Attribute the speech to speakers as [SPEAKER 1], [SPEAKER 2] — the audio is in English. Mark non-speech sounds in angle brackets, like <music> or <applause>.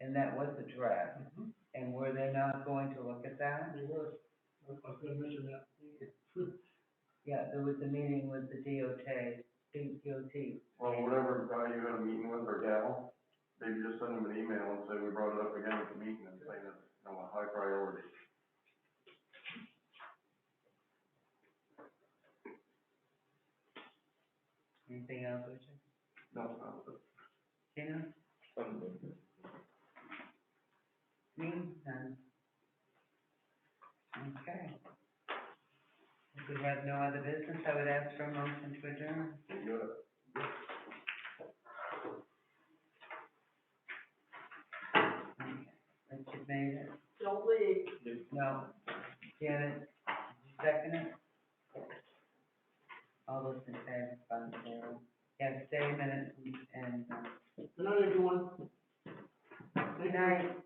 [SPEAKER 1] and that was the draft,
[SPEAKER 2] Mhm.
[SPEAKER 1] and were they not going to look at that?
[SPEAKER 2] They were, I was gonna mention that.
[SPEAKER 1] <laughs> Yeah, there was a meeting with the DOT, DOT,
[SPEAKER 3] Well, whatever guy you had a meeting with or gal, maybe just send them an email and say, we brought it up again at the meeting and saying it's, you know, a high priority.
[SPEAKER 1] anything else, Richard?
[SPEAKER 3] No, no,
[SPEAKER 1] Tina? Me, none. Okay. If we have no other business, I would ask for a motion to adjourn.
[SPEAKER 3] you got it.
[SPEAKER 1] Richard made it.
[SPEAKER 2] Don't leave.
[SPEAKER 1] No. Janet, second it? All those in favor, five zero. Yes, stay a minute and, and, uh,
[SPEAKER 2] Good night, everyone.
[SPEAKER 1] good night.